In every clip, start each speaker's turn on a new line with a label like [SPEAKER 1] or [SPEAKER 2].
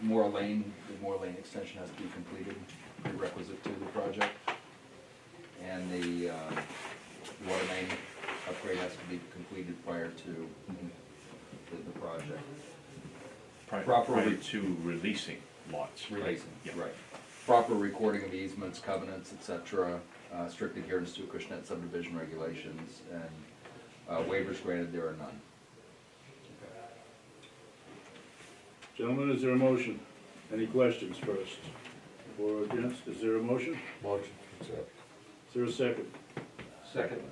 [SPEAKER 1] Moore Lane, the Moore Lane extension has to be completed, prerequisite to the project. And the, uh, water main upgrade has to be completed prior to the, the project.
[SPEAKER 2] Prior,
[SPEAKER 1] Proper
[SPEAKER 2] prior
[SPEAKER 1] re-
[SPEAKER 2] to releasing lots. right?
[SPEAKER 1] Releasing,
[SPEAKER 2] Yeah.
[SPEAKER 1] right. Proper recording of easements, covenants, et cetera, uh, strict adherence to Acushnet subdivision regulations, and uh, waivers granted, there are none.
[SPEAKER 3] Gentlemen, is there a motion? Any questions first? Or against, is there a motion?
[SPEAKER 4] Motion to accept.
[SPEAKER 3] Is there a second?
[SPEAKER 4] Second.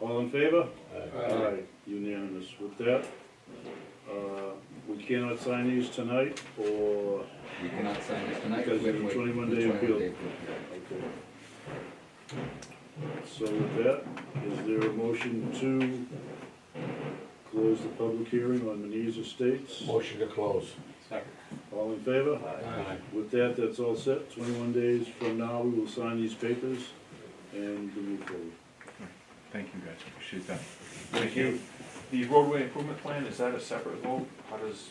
[SPEAKER 3] All in favor? Aye. Unanimous with that. uh, We cannot sign these tonight, or,
[SPEAKER 1] We cannot sign this tonight.
[SPEAKER 3] Because
[SPEAKER 1] we have to
[SPEAKER 3] of the
[SPEAKER 1] wait
[SPEAKER 3] 21
[SPEAKER 1] for the
[SPEAKER 3] day
[SPEAKER 1] 21
[SPEAKER 3] appeal.
[SPEAKER 1] day period.
[SPEAKER 3] okay. So with that, is there a motion to close the public hearing on Manise Estates?
[SPEAKER 4] Motion to close.
[SPEAKER 3] All in favor?
[SPEAKER 4] Aye.
[SPEAKER 3] With that, that's all set. Twenty-one days from now, we will sign these papers and move forward.
[SPEAKER 2] Thank you, guys, appreciate that.
[SPEAKER 5] Thank you. The roadway improvement plan, is that a separate vote? How does,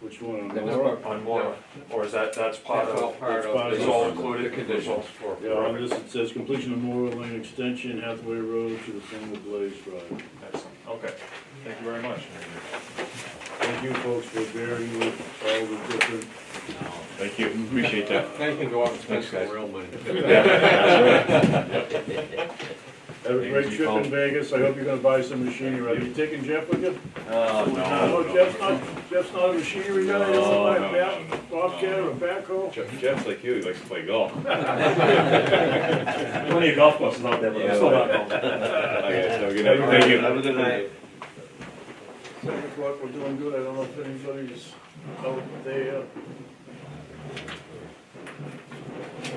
[SPEAKER 3] Which one?
[SPEAKER 1] That
[SPEAKER 3] on
[SPEAKER 1] was
[SPEAKER 3] Laura?
[SPEAKER 1] part-
[SPEAKER 5] on Laura, or is that, that's part
[SPEAKER 4] That's all
[SPEAKER 5] of,
[SPEAKER 4] part
[SPEAKER 3] part
[SPEAKER 4] of.
[SPEAKER 3] of
[SPEAKER 5] it's
[SPEAKER 3] the-
[SPEAKER 5] all included? Conditions.
[SPEAKER 3] Yeah, on this, it says completion of Moore Lane Extension, Hathaway Road to the single blaze drive.
[SPEAKER 5] Excellent, okay, thank you very much.
[SPEAKER 3] Thank you folks for bearing with all the different,
[SPEAKER 2] Thank you, appreciate that.
[SPEAKER 4] They can go out and spend
[SPEAKER 2] Thanks, guys.
[SPEAKER 4] some real money.
[SPEAKER 3] have a great
[SPEAKER 2] Thank you,
[SPEAKER 3] trip
[SPEAKER 2] Paul.
[SPEAKER 3] in Vegas. I hope you're gonna buy some machinery. Are you taking Jeff with you?
[SPEAKER 2] Uh,
[SPEAKER 3] No, Oh, Jeff's not, Jeff's not a machinery guy. He'll
[SPEAKER 2] No,
[SPEAKER 3] buy a
[SPEAKER 2] no,
[SPEAKER 3] ba- bobcat or a backhoe.
[SPEAKER 2] Jeff's like you, he likes to play golf.
[SPEAKER 5] Plenty of golf courses out there, but I'm still not golfing.
[SPEAKER 2] Thank you.
[SPEAKER 4] Have a good night.
[SPEAKER 3] Seven o'clock, we're doing good. I don't know if anybody's out there.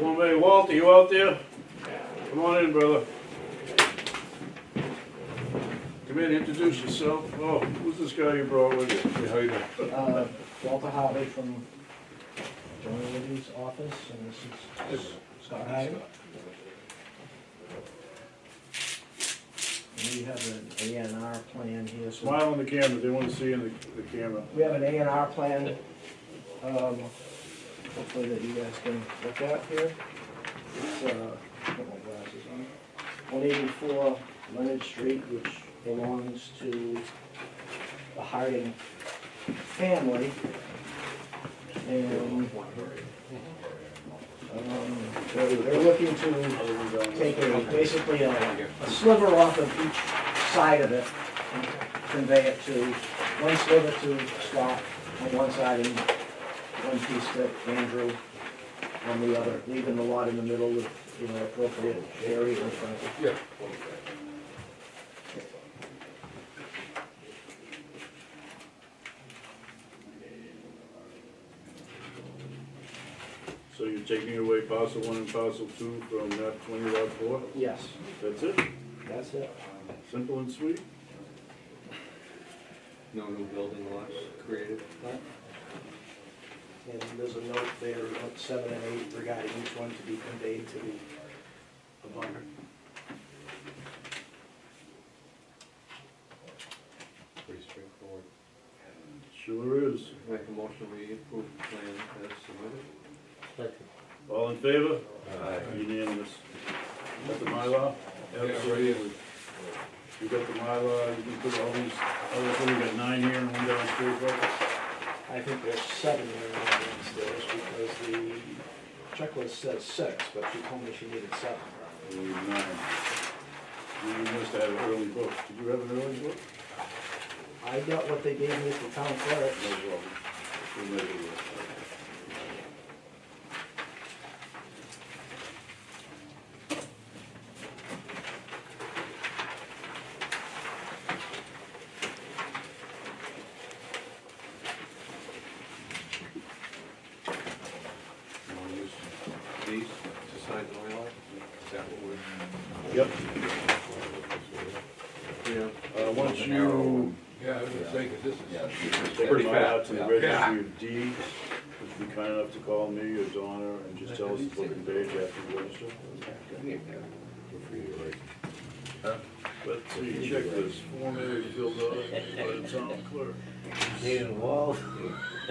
[SPEAKER 3] One way, Walt, are you out there? Come on in, brother. Come in, introduce yourself. Oh, who's this guy you brought with you?
[SPEAKER 4] How you doing?
[SPEAKER 6] Uh, Walter Harvey from Johnny Liddy's office, and this is Scott Hyde. And we have an A and R plan here, so
[SPEAKER 3] Smile on the camera, they wanna see in the, the camera.
[SPEAKER 6] we have an A and R plan, um, hopefully that you guys can look at here. It's, uh, put my glasses on. One eighty-four Leonard Street, which belongs to the Harding family. And, um, they're, they're looking to take a, basically a a sliver off of each side of it and convey it to, one sliver to Scott on one side and one piece to Andrew on the other, leaving the lot in the middle with, you know, appropriate area in front of it.
[SPEAKER 4] Yeah.
[SPEAKER 3] So you're taking away parcel one and parcel two from map twenty lot four?
[SPEAKER 6] Yes,
[SPEAKER 3] That's it?
[SPEAKER 6] that's it.
[SPEAKER 3] Simple and sweet?
[SPEAKER 4] No new building lots created?
[SPEAKER 6] And there's a note there, note seven and eight regarding each one to be conveyed to the abutter.
[SPEAKER 4] Pretty straightforward.
[SPEAKER 3] Sure is.
[SPEAKER 4] Make a motion, we approve the plan as submitted?
[SPEAKER 3] All in favor?
[SPEAKER 4] Aye.
[SPEAKER 3] Unanimous. Got the Mylar? Absolutely. You got the Mylar, you can put all these, other things, we got nine here and one downstairs, right?
[SPEAKER 6] I think there's seven there now downstairs because the checklist says six, but she told me she needed seven.
[SPEAKER 3] There were Nine. You must have an early book. Did you have an early book?
[SPEAKER 6] I got what they gave me at the town clerk.
[SPEAKER 3] No problem. We made it work.
[SPEAKER 4] You wanna use these to sign the Mylar? Is that what
[SPEAKER 3] Yep,
[SPEAKER 4] we're? Yeah.
[SPEAKER 3] uh, once
[SPEAKER 1] The narrow
[SPEAKER 3] you.
[SPEAKER 1] one.
[SPEAKER 7] Yeah, I was gonna say, 'cause this is.
[SPEAKER 1] Yeah.
[SPEAKER 3] Take
[SPEAKER 4] Pretty
[SPEAKER 3] mine
[SPEAKER 4] fast,
[SPEAKER 3] out to the
[SPEAKER 1] yeah.
[SPEAKER 3] registry of deeds, if you're kind enough to call me or Donna and just tell us it's looking page after the register. Let's see, checklist, form A filled out by the town clerk.
[SPEAKER 4] Need a wall?